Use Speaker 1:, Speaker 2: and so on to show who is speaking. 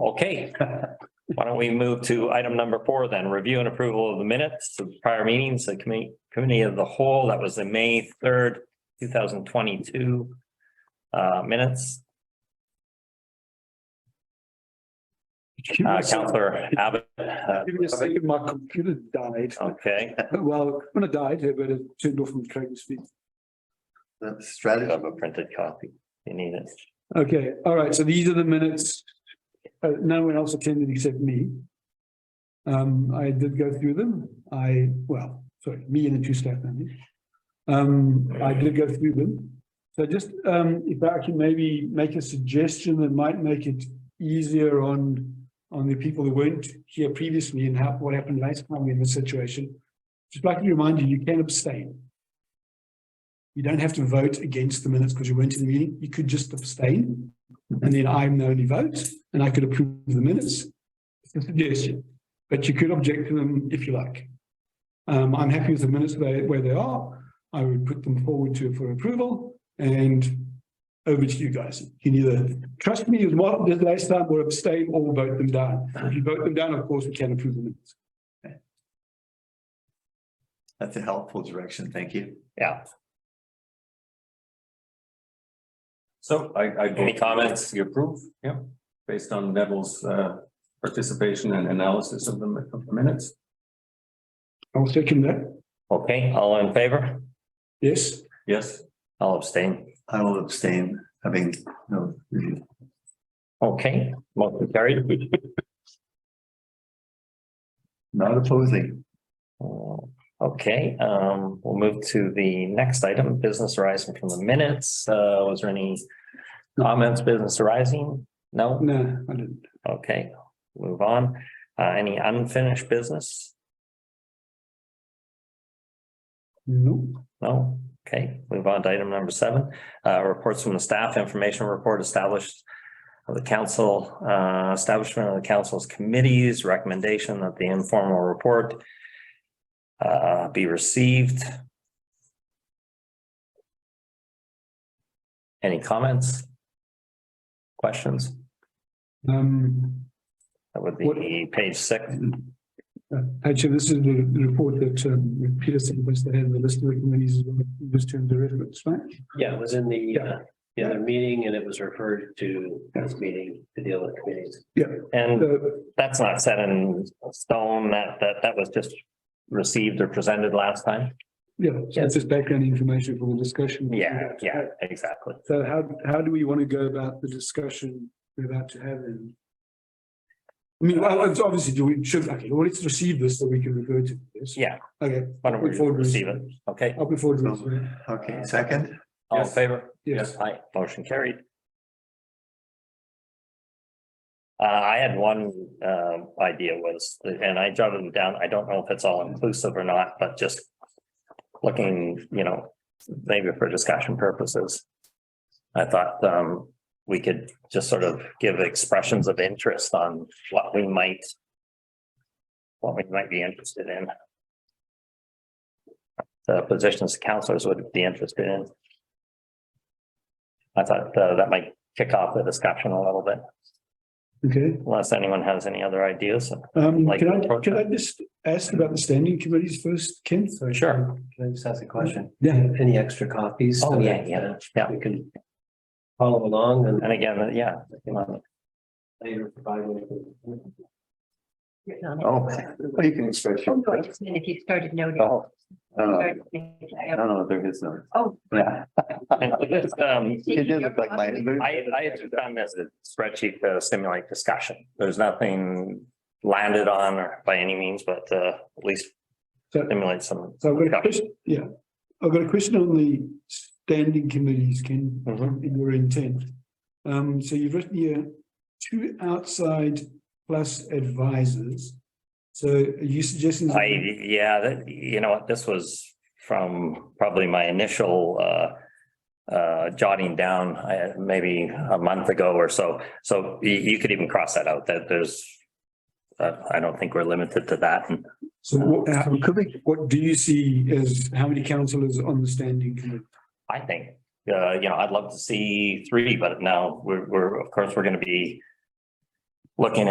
Speaker 1: Okay, why don't we move to item number four then, review and approval of the minutes of prior meetings, the committee, committee of the whole, that was the May third, two thousand twenty-two uh, minutes. Uh, Counselor Abbott, uh,
Speaker 2: Give me a second, my computer died.
Speaker 1: okay,
Speaker 2: Well, when it died, but it turned off from trying to speak.
Speaker 3: The
Speaker 1: I
Speaker 3: strategy.
Speaker 1: have a printed copy, you need it.
Speaker 2: Okay, all right, so these are the minutes. Uh, no one else attended except me. Um, I did go through them. I, well, sorry, me and the two staff members. Um, I did go through them. So just, um, if I can maybe make a suggestion that might make it easier on, on the people who weren't here previously and how, what happened last time in this situation. Just like to remind you, you can abstain. You don't have to vote against the minutes because you weren't in the meeting. You could just abstain. And then I'm the only vote and I could approve the minutes. It's a suggestion, but you could object to them if you like. Um, I'm happy with the minutes where, where they are. I would put them forward to, for approval and over to you guys. You can either trust me as well, did last time, or abstain or vote them down. If you vote them down, of course, we can approve the minutes.
Speaker 3: That's a helpful direction. Thank you.
Speaker 1: Yeah,
Speaker 4: So I, I.
Speaker 1: Any comments?
Speaker 4: You approve? Yep, based on Neville's uh participation and analysis of the mi- of the minutes.
Speaker 2: I'll second that.
Speaker 1: okay, all in favor,
Speaker 2: Yes,
Speaker 4: Yes,
Speaker 1: I'll abstain.
Speaker 3: I will abstain, having no. review.
Speaker 1: Okay, motion carried.
Speaker 3: Not opposing.
Speaker 1: Oh, Okay, um, we'll move to the next item, business arising from the minutes. Uh, was there any comments, business arising? No?
Speaker 2: no, I didn't.
Speaker 1: Okay, move on. Uh, any unfinished business?
Speaker 2: No.
Speaker 1: No? Okay, move on to item number seven, uh, reports from the staff, information report established of the council, uh, establishment of the council's committees, recommendation that the informal report uh, be received. Any comments? Questions?
Speaker 2: Um,
Speaker 1: That would
Speaker 2: What-
Speaker 1: be page six.
Speaker 2: uh, actually, this is the the report that um, Peter sent us that had the list of the committees, as well, just to the reference, right?
Speaker 5: Yeah, it was in the, uh, the
Speaker 2: Yeah.
Speaker 5: other meeting and it was referred to this meeting to deal with committees.
Speaker 1: And
Speaker 2: So,
Speaker 1: that's not set in stone, that, that, that was just received or presented last time?
Speaker 2: yeah, so it's just background information for the discussion.
Speaker 1: Yeah, yeah, exactly.
Speaker 2: So how, how do we want to go about the discussion we're about to have then? I mean, well, it's obviously, do we, should, okay, well, let's receive this so we can refer to this.
Speaker 1: Yeah.
Speaker 2: Okay.
Speaker 1: Why don't we
Speaker 2: Before we-
Speaker 1: receive it? Okay,
Speaker 2: I'll be forward to this.
Speaker 3: Okay, second,
Speaker 1: all in favor?
Speaker 2: Yes.
Speaker 1: Aye, motion carried. Uh, I had one, um, idea was, and I jotted them down, I don't know if it's all inclusive or not, but just looking, you know, maybe for discussion purposes. I thought, um, we could just sort of give expressions of interest on what we might what we might be interested in. The positions counselors would be interested in. I thought uh, that might kick off the discussion a little bit,
Speaker 2: Okay,
Speaker 1: unless anyone has any other ideas.
Speaker 5: Oh,
Speaker 2: um,
Speaker 1: Like
Speaker 2: can I,
Speaker 1: approach
Speaker 2: can I just ask about the standing committees first, Ken? So- uh,
Speaker 1: Sure.
Speaker 5: Can I just ask a question?
Speaker 2: Yeah,
Speaker 5: Any extra copies? so
Speaker 1: Oh, yeah,
Speaker 5: that,
Speaker 1: yeah,
Speaker 5: uh,
Speaker 1: yeah.
Speaker 5: We can follow along and
Speaker 1: And again, uh, yeah.
Speaker 5: later provide. them.
Speaker 3: oh, well, you can express your.
Speaker 6: Oh, No, I just mean if you started noting.
Speaker 3: Oh, I don't know,
Speaker 6: started thinking,
Speaker 3: I don't know, there is no.
Speaker 6: Oh.
Speaker 3: Yeah.
Speaker 1: Um,
Speaker 3: It did look like my.
Speaker 1: I, I had just done this spreadsheet to stimulate discussion. There's nothing landed on or by any means, but uh, at least
Speaker 2: So-
Speaker 1: stimulate some.
Speaker 2: so I've got a
Speaker 1: discussion.
Speaker 2: question, yeah, I've got a question on the standing committees, Ken,
Speaker 1: Mhm.
Speaker 2: in your intent. Um, so you've written here two outside plus advisors. So are you suggesting?
Speaker 1: I, yeah, that, you know what, this was from probably my initial uh. Uh, jotting down, I, maybe a month ago or so, so you, you could even cross that out, that there's. Uh, I don't think we're limited to that, and
Speaker 2: So what, how- could we- what do you see as, how many councillors on the standing committee?
Speaker 1: I think, uh, you know, I'd love to see three, but now we're, we're, of course, we're gonna be. Looking